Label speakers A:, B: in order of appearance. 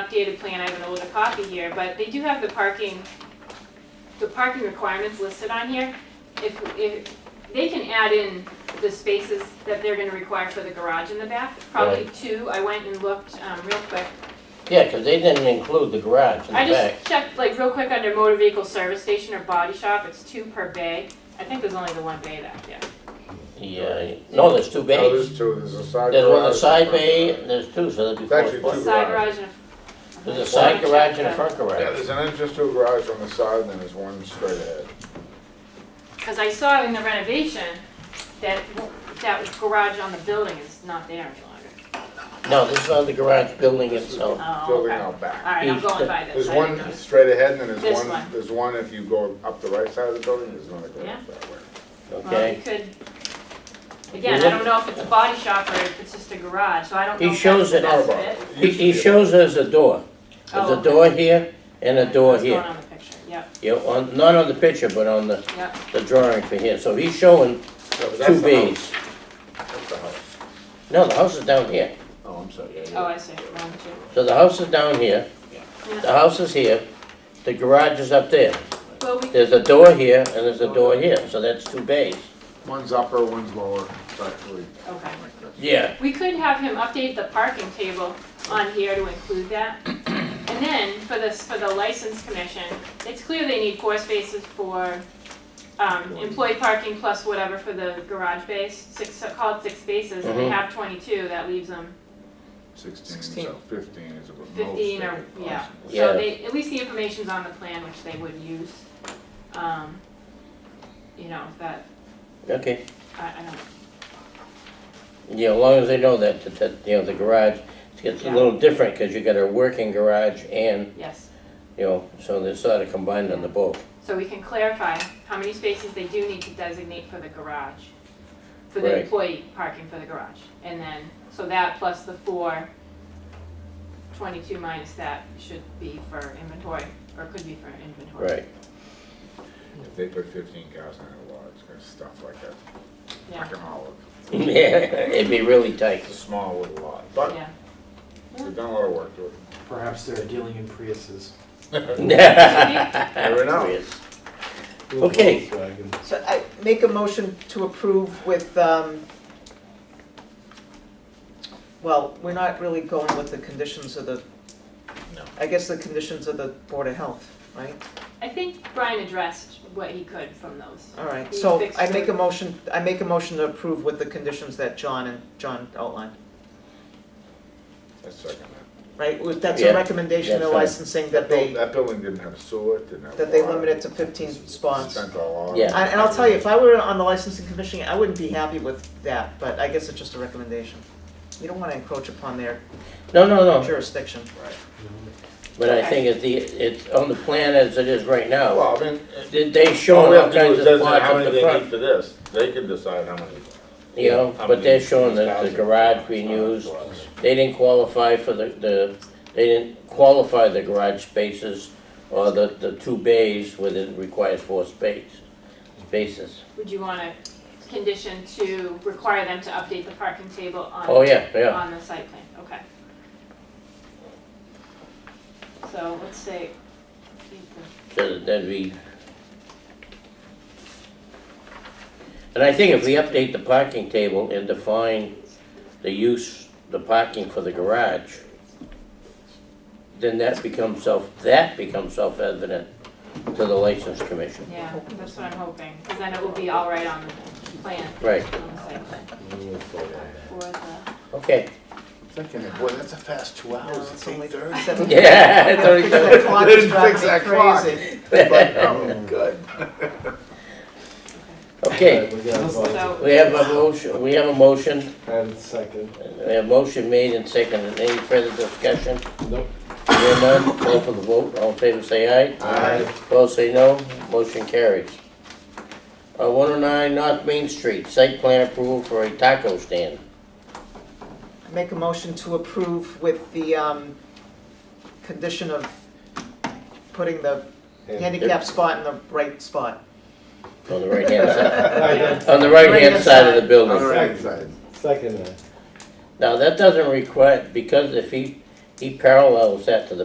A: updated plan, I have an older copy here, but they do have the parking, the parking requirements listed on here. If, if, they can add in the spaces that they're gonna require for the garage in the back, probably two, I went and looked, um, real quick.
B: Yeah, 'cause they didn't include the garage in
A: I
B: the back.
A: just checked, like, real quick under motor vehicle service station or body shop, it's two per bay, I think there's only the one bay back there.
B: Yeah, uh, no, there's two
C: No,
B: bays.
C: there's two, there's a side garage.
B: There's one on the side bay, and there's two, so that'd be four
C: Actually,
A: The
B: spots.
C: two.
A: side
C: garage.
A: garage and a. uh-huh.
B: There's a side garage and a front
C: Yeah,
B: garage.
C: there's an entrance to a garage on the side, and then there's one straight ahead.
A: Cause I saw in the renovation that, that garage on the building is not there any longer.
B: No, this is on the garage building
C: This is
B: itself.
C: the
A: Oh,
C: Building
A: okay.
C: out back.
A: Alright, I'm going by this.
C: There's
A: I
C: one
A: didn't notice.
C: straight ahead, and then
A: This
C: there's one,
A: one.
C: there's one if you go up the right side of the building, there's another
A: Yeah.
C: garage that way.
A: Well,
B: Okay.
A: you could, again, I don't know if it's a body shop or if it's just a garage, so I don't
B: He
A: know if
B: shows
A: that's the
B: it
A: best
C: How
A: fit.
C: about-
B: He, he
C: Yeah.
B: shows us a door. There's
A: Oh,
B: a
A: okay.
B: door here and a door
A: That's going
B: here.
A: on the picture, yep,
B: Yeah, on, not on the picture, but on the,
A: yep.
B: the drawing for here. So he's showing
C: Yeah, but that's
B: two
C: the house.
B: bays.
C: That's the house.
B: No, the house is down here.
C: Oh, I'm sorry, yeah,
A: Oh,
C: yeah.
A: I see, wrong two.
B: So the house is down here, the house is here, the garage is up there.
A: Well, we,
B: There's a door here and there's a door here, so that's two bays.
C: One's upper, one's lower, it's actually.
A: okay.
C: like this.
B: Yeah.
A: We could have him update the parking table on here to include that. And then for this, for the license commission, it's clear they need four spaces for um, employee parking plus whatever for the garage base, six, call it six spaces, and they
B: Mhm.
A: have twenty-two, that leaves them.
C: Sixteen, so fifteen is about most.
A: 15 or-
C: possible.
A: yeah.
B: Yeah.
A: So they, at least the information's on the plan, which they would use. Um, You know, that,
B: Okay,
A: I, I don't,
B: yeah, as long as they know that, that- that, you know, the garage, it gets a
A: Yeah.
B: little different because you got a working garage and,
A: yes.
B: you know, so they're sort of combined on the boat.
A: So we can clarify how many spaces they do need to designate for the garage, for the
B: Right.
A: employee parking for the garage. And then, so that plus the four, 22 minus that should be for inventory, or could be for inventory.
B: Right,
C: If they put fifteen cars in a lot, it's gonna stuff like that,
A: Yeah,
C: like an olive.
B: yeah, it'd be really tight.
C: It's a small little lot, but
A: yeah.
C: we've done a lot of work to it.
D: Perhaps they're dealing in Priuses.
C: Fair enough.
B: Okay.
D: Volkswagen.
E: So I make a motion to approve with, um, well, we're not really going with the conditions of the,
C: No.
E: I guess the conditions of the Board of Health, right?
A: I think Brian addressed what he could from those.
E: All right,
A: You
E: so
A: fixed
E: I make
A: it.
E: a motion, I make a motion to approve with the conditions that John and John outlined,
C: That's second.
E: right? With- That's
B: Yeah.
E: a recommendation,
B: Yeah,
E: the
B: fine.
E: licensing
C: That
E: that
C: building,
E: they,
C: that building didn't have sewer, it didn't have.
E: that they
C: water.
E: limit it to fifteen spots.
C: Spent a lot.
B: Yeah.
E: I- And I'll tell you, if I were on the licensing commission, I wouldn't be happy with that, but I guess it's just a recommendation. You don't want to encroach upon their
B: No, no, no,
E: jurisdiction.
B: but I think it's the, it's on the plan as it is right now.
C: Well, I mean,
B: They- They
C: all
B: showing
C: we have
B: all
C: to do
B: kinds
C: is
B: of
C: designate
B: plots
C: how
B: at
C: many
B: the
C: they need
B: front,
C: for this, they can decide how many.
B: you know,
C: how
B: but
C: many
B: they're showing that the
C: houses.
B: garage being used. They didn't qualify for the, the, they didn't qualify the garage spaces or the, the two bays where it requires four space, spaces.
A: Would you want a condition to require them to update the parking table on?
B: Oh, yeah, yeah,
A: On the site plan, okay. So let's say,
B: so that'd be. And I think if we update the parking table and define the use, the parking for the garage, then that becomes self, that becomes self-evident to the license commission.
A: yeah, that's what I'm hoping, because then it will be all right on the plan,
B: Right,
A: on the site plan for the.
B: okay.
C: Thinking, boy, that's a fast two
E: No,
C: hours,
E: it's
C: it's
E: only
C: eight thirty.
E: seven-
B: Yeah, it's already
E: Fix that
B: done.
E: clock,
C: They didn't
E: it's
C: fix that clock.
E: driving me crazy.
C: um, Good.
B: Okay,
D: We got a vote.
A: So,
B: we have a motion, we have a motion,
D: And second.
B: we have a motion made and seconded, any further discussion?
D: Nope.
B: Hear none, call for the vote, all in favor say aye.
D: Aye.
B: Opposed say no, motion carries. Uh, one oh nine North Main Street, site plan approval for a taco stand.
E: I Make a motion to approve with the, um, condition of putting the handicap spot in the right spot.
B: On the right-hand side,
D: Aye.
B: on the right-hand side
E: Right-hand
B: of the
E: side.
C: On the
B: building.
C: right side.
D: Second. uh,
B: Now, that doesn't require, because if he, he parallels that to the